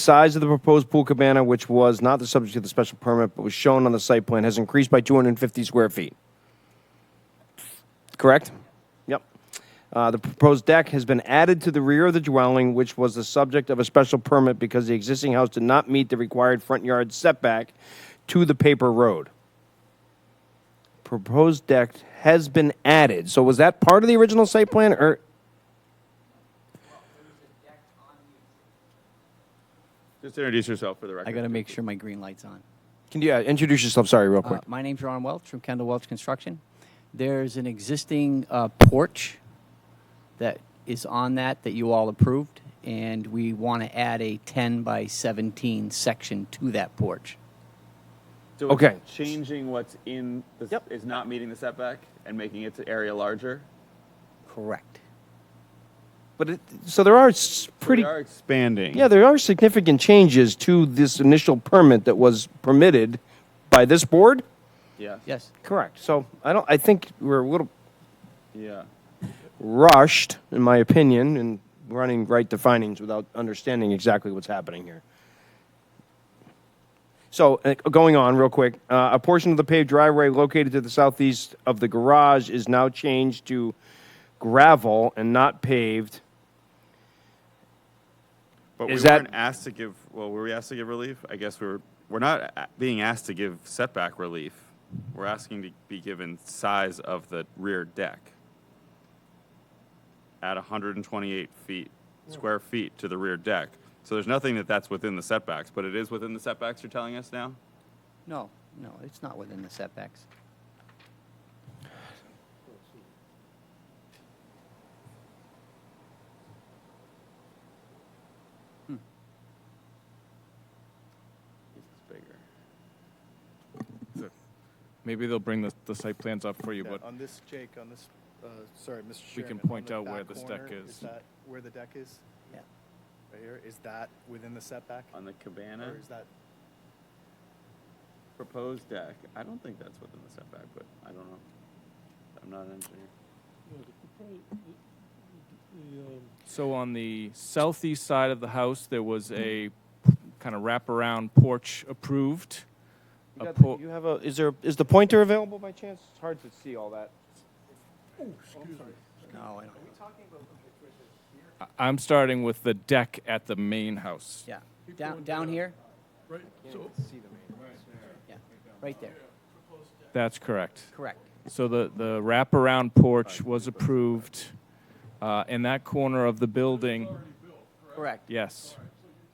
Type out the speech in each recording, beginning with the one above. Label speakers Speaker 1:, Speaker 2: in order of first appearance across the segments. Speaker 1: Size of the proposed pool cabana, which was not the subject of the special permit but was shown on the site plan, has increased by 250 square feet. Correct? Yep. Uh, The proposed deck has been added to the rear of the dwelling, which was the subject of a special permit because the existing house did not meet the required front yard setback to the paper road. Proposed deck has been added. So was that part of the original site plan, or
Speaker 2: Just introduce yourself for the record.
Speaker 3: I got to make sure my green light's on.
Speaker 1: can you uh, introduce yourself? Sorry, real
Speaker 3: Uh,
Speaker 1: quick.
Speaker 3: my name's Ron Welch from Kendall Welch Construction. There's an existing uh, porch that is on that that you all approved, and we want to add a 10 by 17 section to that porch.
Speaker 2: So it's
Speaker 1: Okay.
Speaker 2: Changing what's in the, s-
Speaker 1: Yep.
Speaker 2: is not meeting the setback and making its area larger.
Speaker 3: Correct.
Speaker 1: But it, so there are s-
Speaker 2: So
Speaker 1: pretty.
Speaker 2: We are expanding.
Speaker 1: Yeah, there are significant changes to this initial permit that was permitted by this board.
Speaker 2: Yes.
Speaker 3: Yes.
Speaker 1: Correct. So I don't. I think we're a little
Speaker 2: Yeah.
Speaker 1: rushed, in my opinion, in running right to findings without understanding exactly what's happening here. So, uh, going on real quick, uh, a portion of the paved driveway located to the southeast of the garage is now changed to gravel and not paved.
Speaker 2: But
Speaker 1: Is
Speaker 2: we
Speaker 1: that-
Speaker 2: weren't asked to give. Well, were we asked to give relief? I guess we were. We're not a- being asked to give setback relief. We're asking to be given size of the rear deck at 128 feet square feet to the rear deck. So there's nothing that that's within the setbacks, but it is within the setbacks. You're telling us now.
Speaker 3: No, no, it's not within the setbacks.
Speaker 2: It's bigger.
Speaker 4: Maybe they'll bring the, the site plans up for you,
Speaker 5: Yeah,
Speaker 4: but
Speaker 5: On this, Jake, on this, uh, sorry, Mr.
Speaker 4: We
Speaker 5: Chairman.
Speaker 4: can
Speaker 5: on
Speaker 4: point
Speaker 5: the
Speaker 4: out where
Speaker 5: back
Speaker 4: this deck
Speaker 5: corner, Is
Speaker 4: is.
Speaker 5: that where the deck is?
Speaker 3: Yeah.
Speaker 5: Right here? Is that within the setback?
Speaker 2: On the cabana.
Speaker 5: Or is that,
Speaker 2: proposed deck, I don't think that's within the setback, but I don't know. I'm not an engineer.
Speaker 6: Yeah, the propo- the- the, um,
Speaker 4: so on the southeast side of the house, there was a kind of wraparound porch approved.
Speaker 1: You,
Speaker 4: A
Speaker 1: got the-
Speaker 4: por-
Speaker 1: you have a. Is there? Is the pointer available by chance? It's hard to see all that.
Speaker 3: No, I don't.
Speaker 4: I- I'm starting with the deck at the main house.
Speaker 3: Yeah. Down, down here?
Speaker 6: Right, so,
Speaker 3: Yeah. Right there.
Speaker 4: That's correct.
Speaker 3: Correct.
Speaker 4: So the, the wraparound porch was approved uh, in that corner of the building.
Speaker 3: Correct.
Speaker 4: Yes.
Speaker 6: so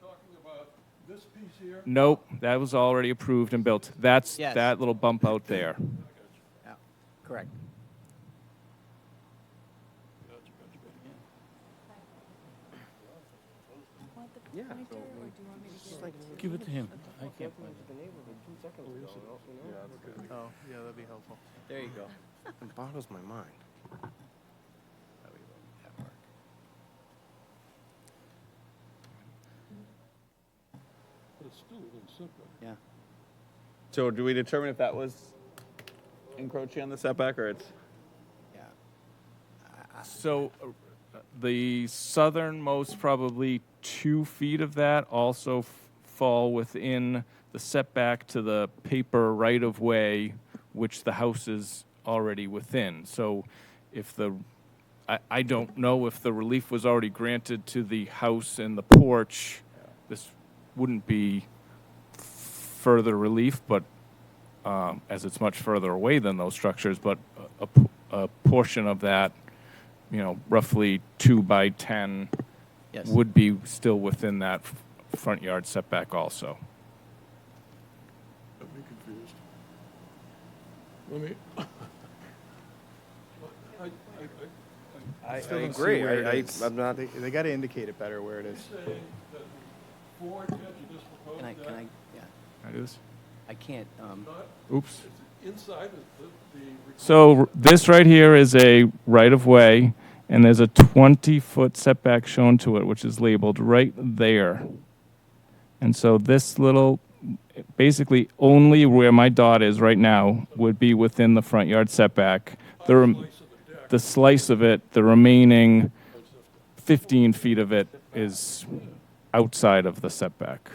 Speaker 6: you're talking about this piece here,
Speaker 4: Nope, that was already approved and built. That's
Speaker 3: Yes.
Speaker 4: that little bump out there.
Speaker 3: Yeah. Correct.
Speaker 6: give it to him. I can't find it.
Speaker 5: oh, yeah, that'd be helpful.
Speaker 3: There you go.
Speaker 1: It boggles my mind.
Speaker 6: But it's still within setback.
Speaker 3: Yeah.
Speaker 2: So do we determine if that was encroaching on the setback or it's?
Speaker 3: Yeah.
Speaker 4: So uh, the southernmost probably two feet of that also f- fall within the setback to the paper right of way, which the house is already within. So if the, I, I don't know if the relief was already granted to the house and the porch, this wouldn't be further relief, but um, as it's much further away than those structures, but a- a, p- a portion of that, you know, roughly two by 10
Speaker 3: Yes.
Speaker 4: would be still within that f- front yard setback also.
Speaker 6: Got me confused. Let me. I, I, I,
Speaker 1: I,
Speaker 5: Still
Speaker 1: I
Speaker 5: don't see
Speaker 1: agree.
Speaker 5: where
Speaker 1: I, I,
Speaker 5: it is.
Speaker 1: I'm not.
Speaker 5: They, they gotta indicate it better where it is.
Speaker 6: it's saying that the board had to just propose
Speaker 3: Can I, can I,
Speaker 6: that,
Speaker 3: yeah.
Speaker 4: Can I do this?
Speaker 3: I can't, um,
Speaker 6: not
Speaker 4: Oops.
Speaker 6: inside of the, the. required-
Speaker 4: So r- this right here is a right of way, and there's a 20 foot setback shown to it, which is labeled right there. And so this little, basically only where my dot is right now would be within the front yard setback. The, rem-
Speaker 6: Place of the deck.
Speaker 4: the slice of it, the remaining 15 feet of it is outside of the setback.